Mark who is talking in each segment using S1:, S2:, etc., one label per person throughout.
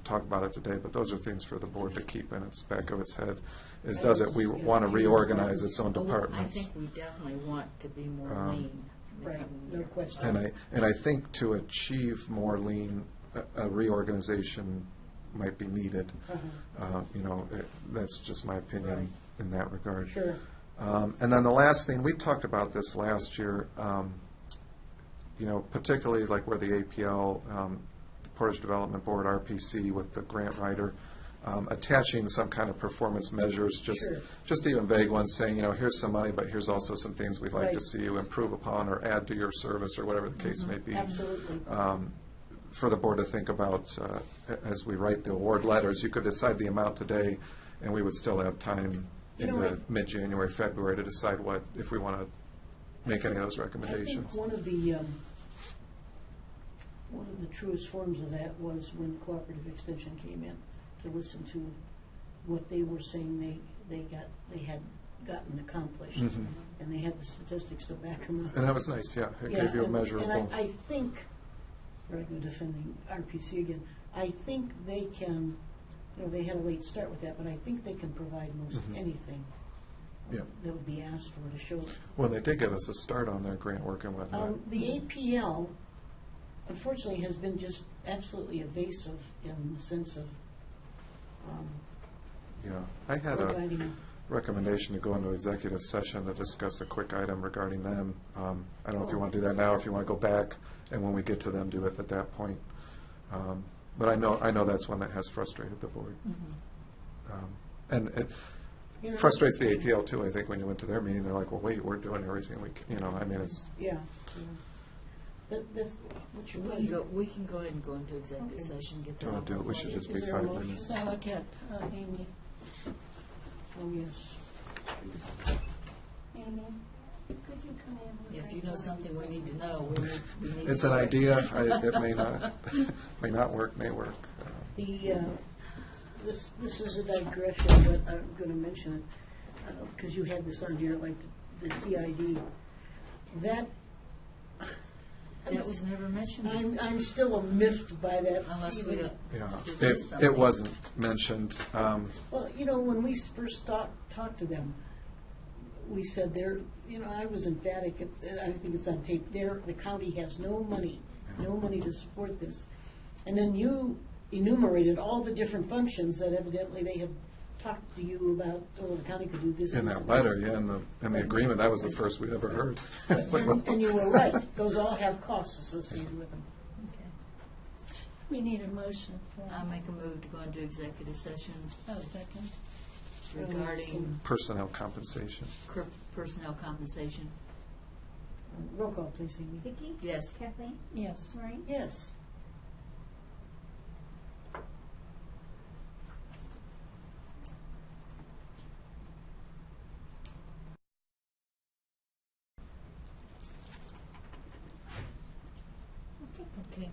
S1: talk about it today, but those are things for the board to keep in its back of its head, is does it, we want to reorganize its own
S2: Oh, I
S1: departments.
S2: think we definitely want to be more
S1: Um,
S2: lean. in the
S3: Right,
S2: coming
S3: no
S2: year.
S3: question.
S1: And I, and I think to achieve more lean, a- a reorganization might be needed. Uh, You know, it- that's just my opinion in that regard.
S3: Sure.
S1: Um, And then the last thing, we talked about this last year, um, you know, particularly like where the APL, um, Portage Development Board, RPC with the grant writer, um, attaching some kind of performance measures, just,
S3: Sure.
S1: just even vague ones, saying, you know, here's some money, but here's also some things we'd like to
S3: Right. Mm-hmm.
S1: see you improve upon or add to your service or whatever the case may be.
S3: Absolutely.
S1: Um, For the board to think about, uh, a- as we write the award letters, you could decide the amount today, and we would still have time
S3: You
S1: in
S3: know,
S1: the
S3: I-
S1: mid-January, February to decide what, if we want to make any of those
S3: I think
S1: recommendations.
S3: one of the, um, one of the truest forms of that was when Cooperative Extension came in to listen to what they were saying they, they got, they had gotten accomplished.
S1: Mhm.
S3: And they had the statistics to back them up.
S1: And that was nice, yeah. It
S3: Yeah,
S1: gave you a
S3: and-
S1: measurable,
S3: And I, I think, rather than defending RPC again, I think they can, you know, they had a late start with that, but I think they can provide most
S1: Mhm.
S3: anything
S1: yeah.
S3: that would be asked for to show.
S1: Well, they did give us a start on their grant work and whatnot.
S3: Um, The APL unfortunately has been just absolutely evasive in the sense of um,
S1: Yeah. I had a
S3: providing,
S1: recommendation to go into executive session to discuss a quick item regarding them. Um, I don't know if you want to do that now, if you want to go back, and when we get to them, do it at that point. Um, But I know, I know that's one that has frustrated the board.
S2: Mhm.
S1: Um, And it
S3: you know,
S1: frustrates the APL too, I think, when you went to their meeting, they're like, well, wait, we're doing everything we, can," you know, I mean, it's,
S3: Yeah. yeah. That, that's, what's your
S2: We can go,
S3: pleasure?
S2: we can go ahead and go into executive
S3: Okay.
S2: session, get the.
S1: I'll do it, we should just be
S3: Is there a
S1: five
S3: motion?
S1: minutes.
S3: So I
S4: can't,
S2: uh,
S4: Amy.
S3: Oh, yes.
S4: Amy, could you come in?
S2: If you know something we need to know, we need, we need.
S1: it's
S2: to
S1: an
S2: know it.
S1: idea, I- it may not, may not work, may work. Uh,
S3: The, uh, this, this is a digression, but I'm going to mention it, because you had this on here, like the TID. That,
S2: That was never mentioned
S3: I'm,
S2: before,
S3: I'm still miffed by that.
S2: unless we
S3: even-
S2: don't.
S1: Yeah,
S2: if there's
S1: it, it
S2: something.
S1: wasn't mentioned, um,
S3: Well, you know, when we first talked, talked to them, we said they're, you know, I was emphatic, it's- and I think it's on tape, there, the county has no money, no money to support this. And then you enumerated all the different functions that evidently they had talked to you about, oh, the county could do this.
S1: in
S3: this,
S1: that
S3: and
S1: letter, yeah, in the, in the agreement, that was the first we'd ever heard. It's
S3: this.
S1: like, well,
S3: And, and you were right, those all have costs associated with them.
S4: We need a motion for,
S2: I make a move to go into executive session
S4: a second.
S2: regarding
S1: Personnel compensation,
S2: cur- personnel compensation.
S3: Roll call, please, Amy.
S5: Vicki?
S2: Yes.
S5: Kathleen?
S4: Yes.
S5: Maureen?
S3: Yes.
S2: Okay.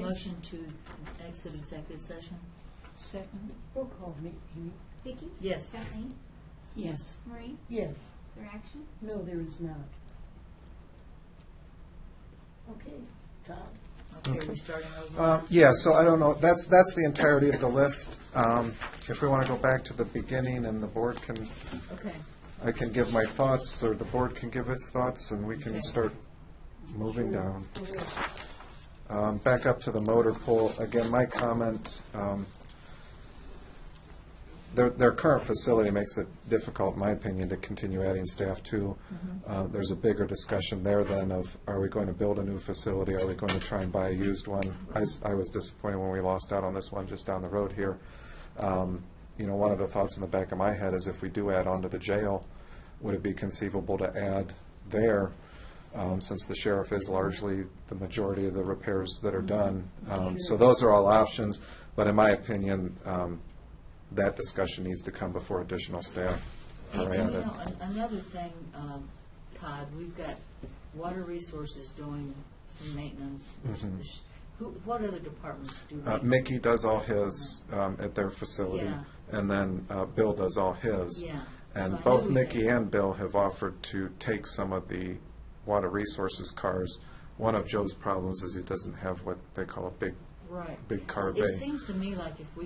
S2: Motion to exit executive session?
S4: Second.
S3: Roll call, Ma- Amy.
S5: Vicki?
S2: Yes.
S5: Kathleen?
S4: Yes.
S5: Maureen?
S3: Yes.
S5: Their action?
S3: No, there is not. Okay, Todd?
S2: Okay, we're starting over.
S1: Um, Yeah, so I don't know, that's, that's the entirety of the list. Um, If we want to go back to the beginning and the board can,
S2: Okay.
S1: I can give my thoughts, or the board can give its thoughts, and we can
S2: Okay.
S1: start moving down. Um, Back up to the motor pool, again, my comment, um, their, their current facility makes it difficult, in my opinion, to continue adding staff to. Uh, There's a bigger discussion there then of, are we going to build a new facility, are we going to try and buy a used one? I, s- I was disappointed when we lost out on this one just down the road here. Um, You know, one of the thoughts in the back of my head is if we do add on to the jail, would it be conceivable to add there, um, since the sheriff is largely the majority of the repairs that are done? Um, So those are all options, but in my opinion, um, that discussion needs to come before additional staff
S2: And,
S1: are
S2: and you
S1: added.
S2: know, an- another thing, um, Todd, we've got water resources doing some maintenance.
S1: Mhm.
S2: The sh- Who, what other departments do
S1: Uh,
S2: maintenance?
S1: Mickey does all his um, at their facility,
S2: Yeah.
S1: and then uh, Bill does all his.
S2: Yeah. So I
S1: And
S2: knew
S1: both
S2: we
S1: Mickey
S2: had-
S1: and Bill have offered to take some of the water resources cars. One of Joe's problems is he doesn't have what they call a big
S2: Right.
S1: big car bay.
S2: It seems to me like if we